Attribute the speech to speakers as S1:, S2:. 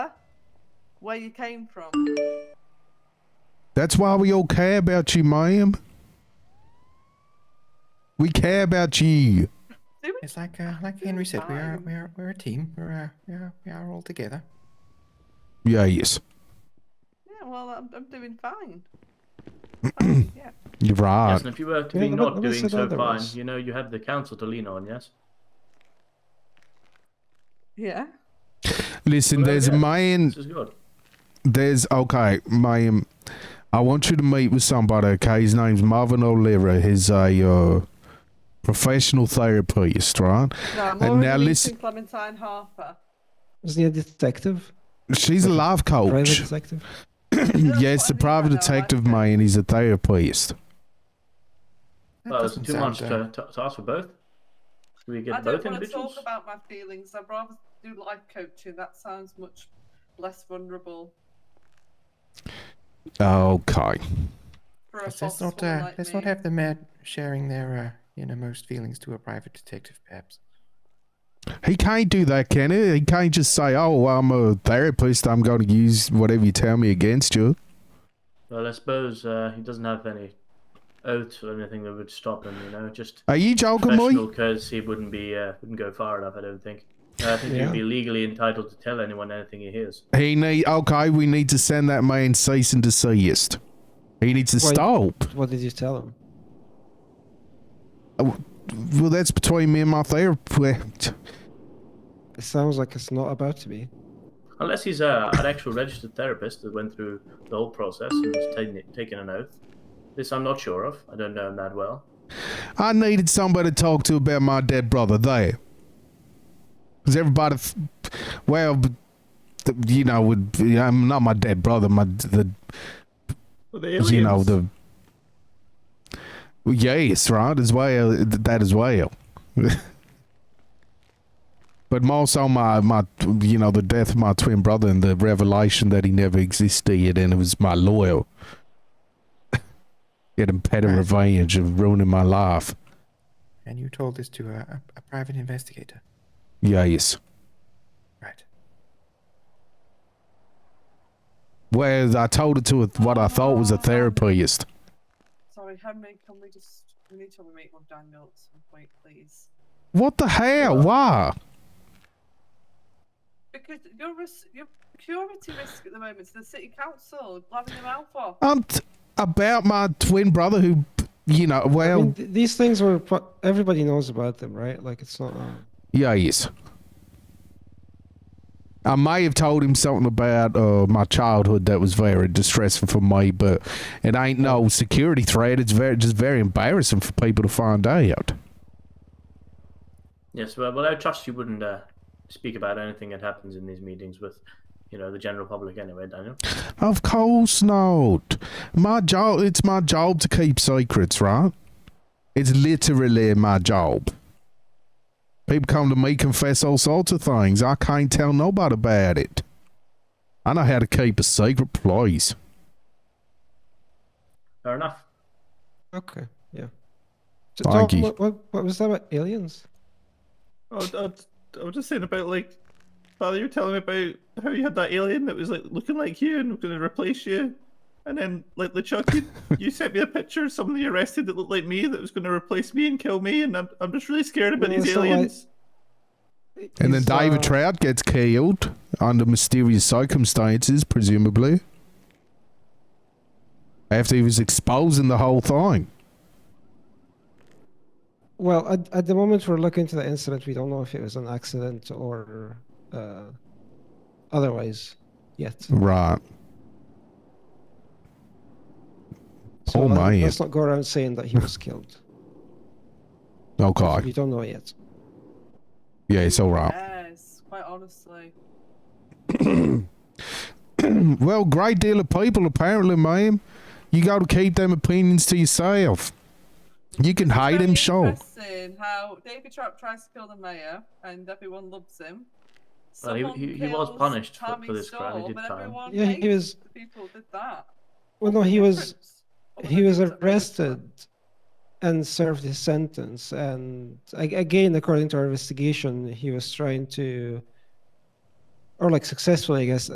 S1: where you came from.
S2: That's why we all care about you, ma'am. We care about you.
S1: Do we?
S3: It's like uh, like Henry said, we are we are we're a team. We're uh, we are we are all together.
S2: Yeah, yes.
S1: Yeah, well, I'm, I'm doing fine. Fine, yeah.
S2: You're right.
S4: yes, and if you were to
S5: yeah,
S4: be
S5: let me-
S4: not
S5: let me
S4: doing
S5: sit
S4: so
S5: down there,
S4: fine,
S5: Ross.
S4: you know you have the council to lean on. Yes.
S1: Yeah.
S2: Listen,
S4: Well,
S2: there's a
S4: yeah.
S2: man.
S4: This is good.
S2: There's okay, ma'am. I want you to meet with somebody. Okay, his name's Marvin O'Leary. He's a uh, professional therapist, right?
S1: No, I'm
S2: And
S1: already
S2: now
S1: meeting
S2: listen-
S1: Clementine Harper.
S5: Is he a detective?
S2: She's a life
S5: Private
S2: coach.
S5: detective?
S2: yes, the private detective man. He's a therapist.
S3: That
S4: Well, it's
S3: doesn't
S4: too much
S3: sound, uh,
S4: to, to, to ask for both. Do we get
S1: I
S4: both
S1: don't want to
S4: individuals?
S1: talk about my feelings. I'd rather do life coaching. That sounds much less vulnerable
S2: Okay.
S1: for a
S3: Let's,
S1: boss
S3: let's not
S1: woman
S3: uh,
S1: like
S3: let's
S1: me.
S3: not have the man sharing their uh, innermost feelings to a private detective, perhaps.
S2: He can't do that, can he? He can't just say, "Oh, I'm a therapist. I'm going to use whatever you tell me against you."
S4: Well, I suppose uh, he doesn't have any oath or anything that would stop him. You know, just
S2: Are you joking
S4: professional
S2: me?
S4: courtesy wouldn't be uh, wouldn't go far enough. I don't think. Uh, I think
S5: Yeah.
S4: you'd be legally entitled to tell anyone anything he hears.
S2: He need. Okay, we need to send that man cease and desist. He needs to
S5: Wait.
S2: stop.
S5: What did you tell him?
S2: Well, that's between me and my therapist.
S5: It sounds like it's not about to be.
S4: Unless he's uh, an actual registered therapist that went through the whole process and has taken, it- taken an oath. This I'm not sure of. I don't know him that well.
S2: I needed somebody to talk to about my dead brother there. Because everybody, f- well, b- th- you know, would be- I'm not my dead brother, my the you know the. Well, Yes, right as well th- that as well, but more so my my you know the death of my twin brother and the revelation that he never existed and it was my loyal. Getting petty
S3: Right.
S2: revenge of ruining my life.
S3: And you told this to a, a, a private investigator,
S2: Yes.
S3: right?
S2: Well, I told it to a, what I thought was a therapist.
S1: Sorry, Henry, can we just. We need to meet with Daniel at some point, please.
S2: What the hell? Why?
S1: Because your, ris- your security risk at the moment to the city council, blabbing your mouth off.
S2: I'm t- about my twin brother who, you know,
S5: I
S2: well,
S5: mean, th- these things were. pro- Everybody knows about them, right? Like it's not. Uh,
S2: Yeah, yes. I may have told him something about uh, my childhood that was very distressful for me, but it ain't no security threat. It's very just very embarrassing for people to find out.
S4: Yes, well, well I trust you wouldn't uh, speak about anything that happens in these meetings with, you know, the general public anyway, Daniel.
S2: Of course not. My job. It's my job to keep secrets, right? It's literally my job. People come to me confess all sorts of things. I can't tell nobody about it. I know how to keep a secret, please.
S4: Fair enough.
S5: okay. Yeah. So,
S2: Thank
S5: Tom,
S2: you.
S5: what, what, what was that about aliens?
S6: I, I, I was just saying about like, Father, you were telling me about how you had that alien that was like looking like you and was going to replace you, and then like LeChuck, you, you sent me a picture of somebody arrested that looked like me that was going to replace me and kill me, and I'm, I'm just really scared about
S5: Yeah,
S6: these
S5: it's not like-
S6: aliens.
S2: And then
S5: Is,
S2: David
S5: uh,
S2: Trout gets killed under mysterious circumstances, presumably. After he was exposing the whole thing.
S5: Well, at, at the moment we're looking into the incident. We don't know if it was an accident or uh, otherwise yet.
S2: Right.
S5: So
S2: Oh
S5: let-
S2: my.
S5: uh, Let's not go around saying that he was killed.
S2: Okay.
S5: We don't know yet.
S2: Yeah, it's all right.
S1: Yes, quite honestly.
S2: Well, great deal of people, apparently, ma'am. You got to keep them opinions to yourself. You can hate
S1: Very
S2: him, sure.
S1: Interesting how David Trap tries to kill the mayor and everyone loves him.
S4: Well, he-
S1: Someone
S4: he- he was
S1: kills
S4: punished for-
S1: Tammy
S4: for this crime, he
S1: Stahl,
S4: did
S1: but
S4: time.
S1: everyone
S5: Yeah, he
S1: hates
S5: was.
S1: the people who did that.
S5: Well, no, he was. He was arrested
S1: arrested.
S5: and served his sentence. And a- again, according to our investigation, he was trying to, or like successfully, I guess,